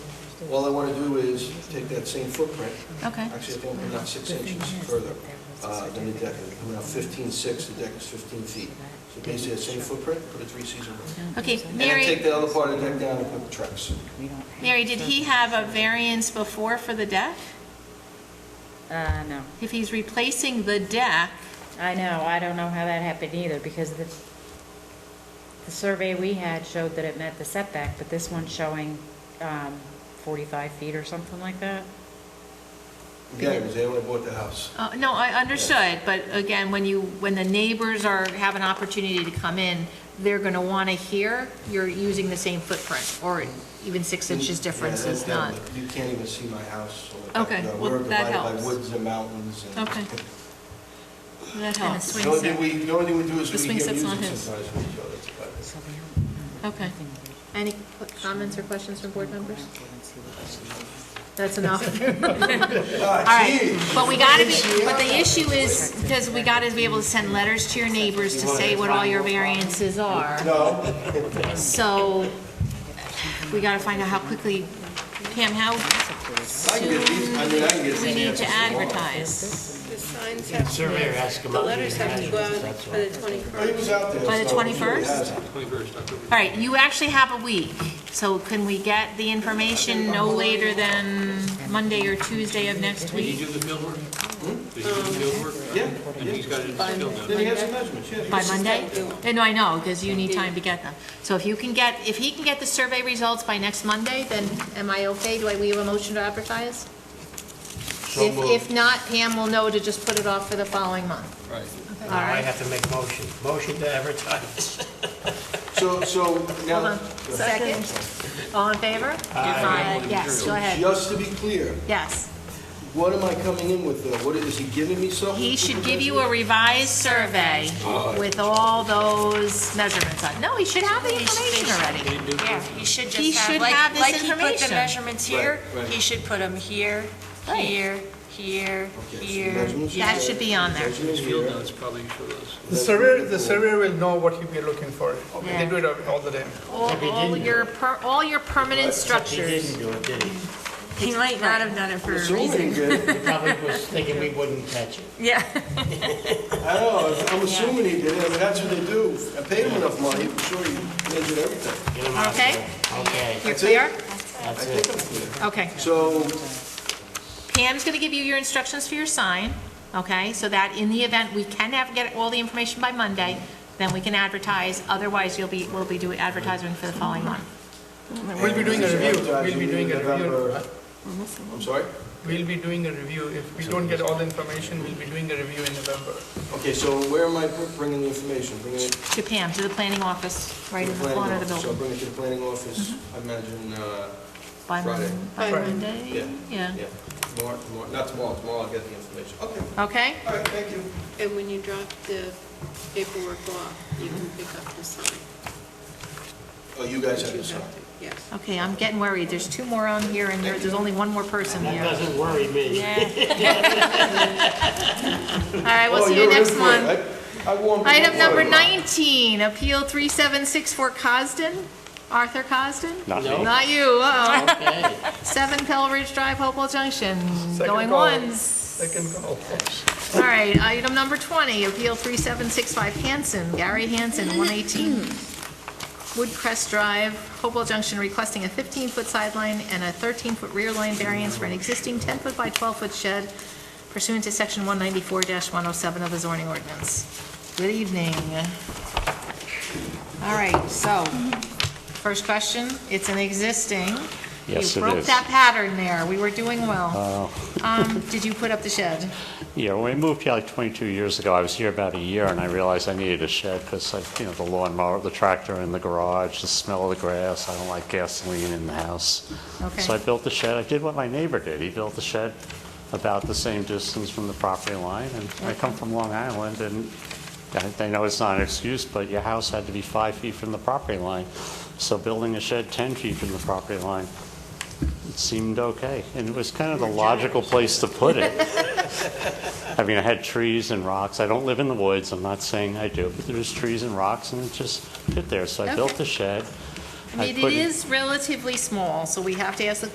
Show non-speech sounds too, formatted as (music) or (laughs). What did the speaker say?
All I want to do is take that same footprint, Okay. actually, I think we're not six inches further uh, than the deck. We're now 15.6, the deck is 15 feet. So basically, that same footprint, put a three-season roof. Okay, And then take Mary, the other part of the deck down and put trucks. Mary, did he have a variance before for the deck? Uh, no. If he's replacing the deck, I know, I don't know how that happened either, because the, the survey we had showed that it met the setback, but this one's showing, um, forty-five feet or something like that. Again, it was there when I bought the house. uh, no, I understood, but again, when you, when the neighbors are, have an opportunity to come in, they're going to want to hear you're using the same footprint, or even six inches difference Yeah, is that- not. that- You can't even see my house. on the back. Okay, No, well, We're that divided by helps. woods and mountains. and- (laughs) Okay. That And the helps. swing The only thing we, the only thing we do is The we hear music swing set's not sometimes his. with each other. It's about it. So we don't- Okay. nothing. Any comments or questions from board members? That's enough. (laughs) Ah, All right, gee. but we gotta be, but the issue is, because we gotta be able to send letters to your neighbors to say what all your variances are. No, So, we gotta find out how quickly, Pam, how I can get these, I mean, I can get these we need to answers tomorrow. advertise. The signs have to, Surveyor asked him the out. letters have to go out for the Oh, he was 21st. out there. By the so he really 21st? has it. All right, you actually have a week, so can we get the information no later than Monday or Tuesday of next Did he week? do the field work? Did he do the field work? Yeah, And he's got it in his Then field now. he has some measurements, yeah. By Monday? Eh, No, I know, because you need time to get them. So if you can get, if he can get the survey results by next Monday, then am I okay? Do I, we have a motion to advertise? If, if not, Pam will know to just put it off for the following month. Right. All Now I right? have to make motion, motion to advertise. So, so Hold now, on. Second? All in favor? Aye. Yes, go ahead. just to be clear, Yes. what am I coming in with though? What, is he giving me something? He should give you a revised survey with all those measurements on. No, he should have the information already. Yeah, he should He just should have, have like, like this he put the information. measurements here, Right, right. he should put them here, Right. here, here, Okay, so here. measurements That here, should be on there. measurements Field here. notes probably show those. The surveyor, the surveyor will know what he'll be looking for. They do it all- all the time. (laughs) All, all your, per- all your permanent He structures. didn't do it, did he? He might not have done it for It's all been good. (laughs) He probably was thinking we wouldn't catch it. Yeah. I don't know, I'm assuming he did it, I mean, that's what they do. I paid him enough money, I'm sure he they did everything. (laughs) Get him out of Okay. there. Okay, You're That's it? clear? I that's think it. I'm clear. Okay. So, Pam's going to give you your instructions for your sign, okay? So that in the event we can have, get all the information by Monday, then we can advertise. Otherwise, you'll be, we'll be doing advertising for the following month. We'll be doing a review, we'll be doing a review. November- I'm sorry? We'll be doing a review. If we don't get all the information, we'll be doing a review in November. Okay, so where am I bringing the information? Bringing it To Pam, to the planning office, right to in the the planning corner of the office? So I'll building. bring it to the planning office, I imagine, uh, By Mon- Friday. By Friday. Monday, Yeah. yeah. yeah. Tomorrow, tomorrow, not tomorrow, tomorrow I'll get the information. Okay, Okay? all right, thank you. And when you drop the paperwork off, you can pick up the sign. Oh, you guys have You to sign. have to, Yes. Okay, I'm getting worried. There's two more on here and there- there's only one more person That here. doesn't worry me. All right, we'll Oh, see you you're next in for it. month. I I warned you. Item Don't number worry. 19, Appeal 3764 Cosden, Arthur Cosden? Not No. me. Not you, uh-oh. Okay. 7 Pell Ridge Drive, Hopewell Junction, Second going call. once. Second call. All right, item number 20, Appeal 3765 Hanson, Gary Hanson, 118 Woodcrest Drive, Hopewell Junction, requesting a 15-foot sideline and a 13-foot rear line variance for an existing 10-foot by 12-foot shed pursuant to Section 194-107 of the zoning ordinance. Good evening. All right, so, first question, it's an existing. Yes, it You broke is. Oh. that pattern there, we were doing well. Um, Did you put up the shed? Yeah, when we moved here like 22 years ago, I was here about a year, and I realized I needed a shed because, you know, the lawnmower, the tractor in the garage, the smell of the grass, I don't like gasoline in the house. Okay. So I built the shed, I did what my neighbor did, he built the shed about the same distance from the property line, and I come from Long Island, and I I know it's not an excuse, but your house had to be five feet from the property line, so building a shed 10 feet from the property line it seemed okay, and it was kind of the logical place to put it. (laughs) I mean, I had trees and rocks. I don't live in the woods. I'm not saying I do, but there's trees and rocks, and it just fit there. So I built Okay. the shed. I mean, it put in- is relatively small, so we have to ask the